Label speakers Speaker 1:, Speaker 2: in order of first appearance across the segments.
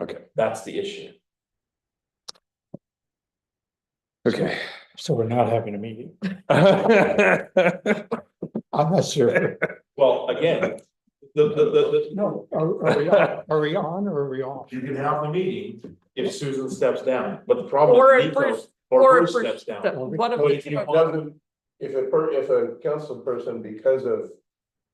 Speaker 1: Okay.
Speaker 2: That's the issue.
Speaker 1: Okay.
Speaker 3: So we're not having a meeting.
Speaker 1: Well,
Speaker 3: I'm not sure.
Speaker 2: Well, again, the, the, the,
Speaker 3: No, are, are we, on- are we on or are we off?
Speaker 2: the, you can have the meeting if Susan steps down, but the problem.
Speaker 4: Or
Speaker 2: is
Speaker 4: if
Speaker 2: Nico-
Speaker 4: Bruce-
Speaker 2: Or
Speaker 4: or
Speaker 2: Bruce
Speaker 4: if Bruce
Speaker 2: steps down.
Speaker 4: That one of
Speaker 2: But
Speaker 4: the
Speaker 2: if
Speaker 4: two
Speaker 2: you
Speaker 4: are-
Speaker 2: doesn't,
Speaker 5: If a per, if a council person, because of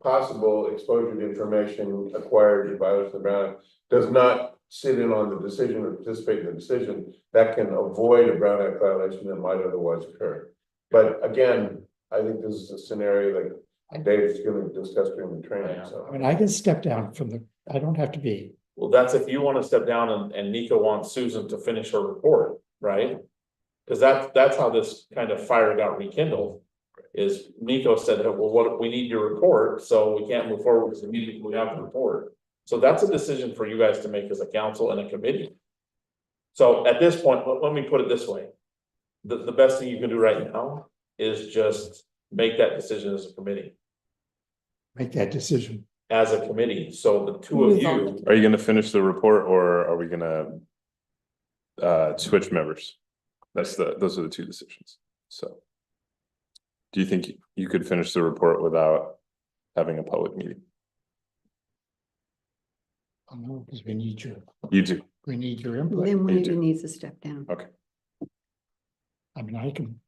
Speaker 5: possible exposure to information acquired in violation of the Brown, Act, does not sit in on the decision or participate in the decision, that can avoid a Brown Act violation that might otherwise occur. But again, I think this is a scenario that Dave's gonna discuss during the training,
Speaker 3: I
Speaker 5: so.
Speaker 3: mean, I can step down from the, I don't have to be.
Speaker 2: well, that's if you wanna step down and, and Nico wants Susan to finish her report, right? Cause that, that's how this kind of fire got rekindled. Is Nico said, "Hey, well, what, we need your report, so we can't move forward with the meeting, we have the report. So that's a decision for you guys to make as a council and a committee. So at this point, let, let me put it this way. The, the best thing you can do right now is just make that decision as a committee,
Speaker 3: Make that decision.
Speaker 2: as a committee, so the two of
Speaker 4: Move on.
Speaker 2: you.
Speaker 1: Are you gonna finish the report or are we gonna? Uh, switch members? That's the, those are the two decisions, so. Do you think you could finish the report without having a public meeting?
Speaker 3: I know, because we need your,
Speaker 1: You do,
Speaker 3: we need your input.
Speaker 6: Then
Speaker 1: you
Speaker 6: one of
Speaker 1: do.
Speaker 6: you needs to step down.
Speaker 3: I mean, I can.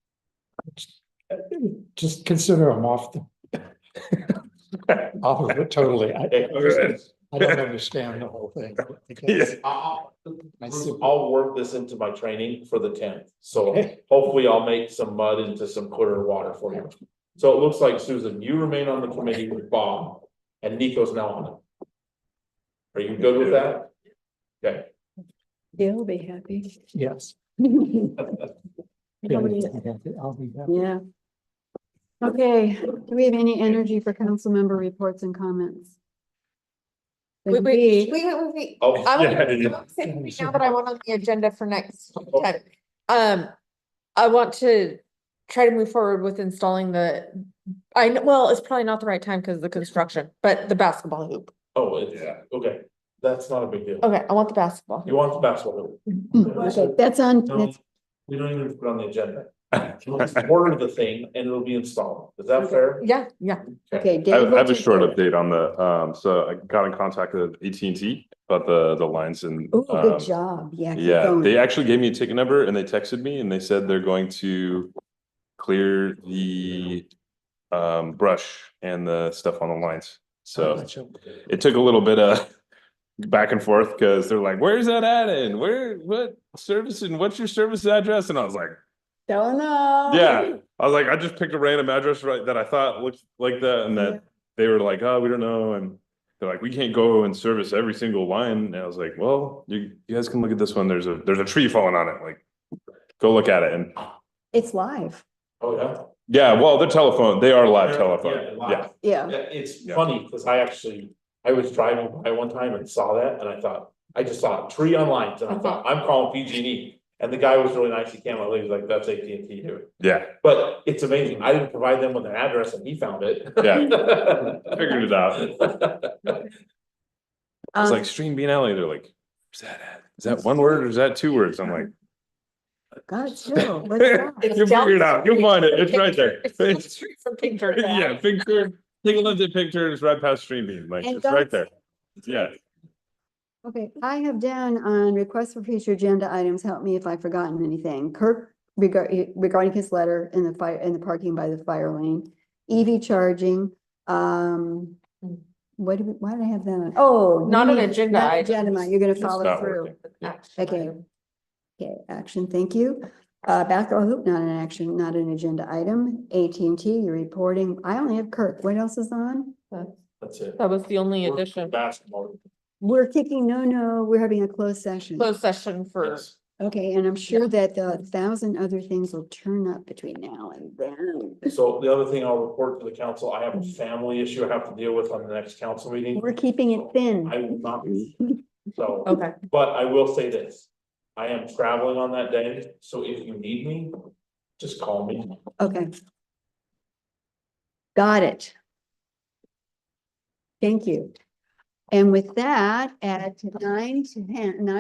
Speaker 3: Just consider I'm off the. Off of it totally. I,
Speaker 2: Okay,
Speaker 3: I don't understand the whole thing.
Speaker 1: Yeah.
Speaker 2: I'll,
Speaker 3: I see.
Speaker 2: I'll work this into my training for the tenth, so
Speaker 3: Okay.
Speaker 2: hopefully I'll make some mud into some clearer water for you. So it looks like Susan, you remain on the committee with Bob, and Nico's now on it. Are you good with that? Okay,
Speaker 6: He'll be happy.
Speaker 3: Yes. I'll
Speaker 6: Nobody-
Speaker 3: be happy.
Speaker 6: Yeah. Okay, do we have any energy for council member reports and comments?
Speaker 4: Wait,
Speaker 6: Then
Speaker 4: wait,
Speaker 6: we-
Speaker 4: wait, wait, wait.
Speaker 2: oh,
Speaker 4: I
Speaker 1: Yeah,
Speaker 4: want
Speaker 1: yeah.
Speaker 4: to say right now that I want on the agenda for next time. Um, I want to try to move forward with installing the, I, kn- well, it's probably not the right time because of the construction, but the basketball hoop.
Speaker 2: oh, it's,
Speaker 1: yeah,
Speaker 2: okay, that's not a big deal.
Speaker 4: Okay, I want the basketball.
Speaker 2: You
Speaker 4: hoop.
Speaker 2: want the basketball?
Speaker 6: Okay, That's on,
Speaker 2: No,
Speaker 6: that's,
Speaker 2: we don't even put it on the agenda. We'll just Order the thing and it'll be installed, is that fair?
Speaker 4: Yeah, yeah.
Speaker 6: okay.
Speaker 1: I
Speaker 6: Dave
Speaker 1: I
Speaker 6: will
Speaker 1: have a
Speaker 6: take
Speaker 1: short
Speaker 6: care of it.
Speaker 1: update on the, um, so I got in contact with AT&T about the, the lines and.
Speaker 6: Ooh,
Speaker 1: um,
Speaker 6: good job. Yeah. keep
Speaker 1: Yeah,
Speaker 6: going.
Speaker 1: they actually gave me a ticket number and they texted me and they said they're going to clear the um brush and the stuff on the lines. So
Speaker 3: Gotcha.
Speaker 1: it took a little bit of back and forth because they're like, where's that at and where, what service and what's your service address? And I was like,
Speaker 6: Don't know.
Speaker 1: yeah, I was like, I just picked a random address right that I thought looked like that and
Speaker 6: Yeah.
Speaker 1: that they were like, oh, we don't know. And they're like, we can't go and service every single line. And I was like, well, you, you guys can look at this one. There's a, there's a tree falling on it. Like, go look at it. And
Speaker 6: It's live.
Speaker 2: Oh, yeah.
Speaker 1: yeah, well, they're telephone, they are live telephone.
Speaker 2: live.
Speaker 1: Yeah.
Speaker 6: Yeah.
Speaker 2: Yeah, it's
Speaker 1: Yeah.
Speaker 2: funny, cause I actually, I was driving by one time and saw that, and I thought, I just saw a tree on lines, and I thought, I'm calling PG and E. And the guy was really nice, he came out, he was like, that's AT and T here,
Speaker 1: Yeah.
Speaker 2: but it's amazing, I didn't provide them with an address and he found it.
Speaker 1: I Figured it out. It's
Speaker 6: Um,
Speaker 1: like Stream Bean Alley. They're like, is that at? Is that one word or is that two words? I'm like,
Speaker 6: God, chill. Let's go.
Speaker 1: you'll figure it out. You'll find it. It's right there.
Speaker 4: It's down the street from Picture Bag.
Speaker 1: Yeah, picture, take a look at pictures right past Stream Bean, like
Speaker 6: And
Speaker 1: it's right
Speaker 6: don't-
Speaker 1: there. Yeah.
Speaker 6: Okay, I have down on requests for future agenda items, help me if I've forgotten anything. Kirk regarding, regarding his letter in the fire, in the parking by the fire lane, EV charging, um,
Speaker 4: Hmm.
Speaker 6: what do we, why did I have that on? Oh.
Speaker 4: Not an
Speaker 6: you-
Speaker 4: agenda
Speaker 6: not
Speaker 4: item.
Speaker 6: Agenda, Mike, you're gonna
Speaker 4: It's
Speaker 6: follow
Speaker 1: not
Speaker 6: through.
Speaker 1: working.
Speaker 4: Action
Speaker 6: Okay.
Speaker 4: item.
Speaker 6: Okay, action, thank you. Uh, basketball hoop, not an action, not an agenda item. AT&T, you're reporting. I only have Kirk. What else is on?
Speaker 4: That's-
Speaker 2: That's it.
Speaker 4: That was the only
Speaker 2: We're
Speaker 4: addition,
Speaker 2: Basketball.
Speaker 6: We're kicking, no, no, we're having a closed session.
Speaker 4: closed session for.
Speaker 2: Yes.
Speaker 6: Okay, and I'm sure that the thousand other things will turn up between now and then.
Speaker 2: So the other thing I'll report to the council, I have a family issue I have to deal with on the next council meeting.
Speaker 6: We're keeping it thin.
Speaker 2: I will not be, so.
Speaker 4: Okay,
Speaker 2: But I will say this, I am traveling on that day, so if you need me, just call me.
Speaker 6: Okay. Got it. Thank you. And with that, at nine to ten, nine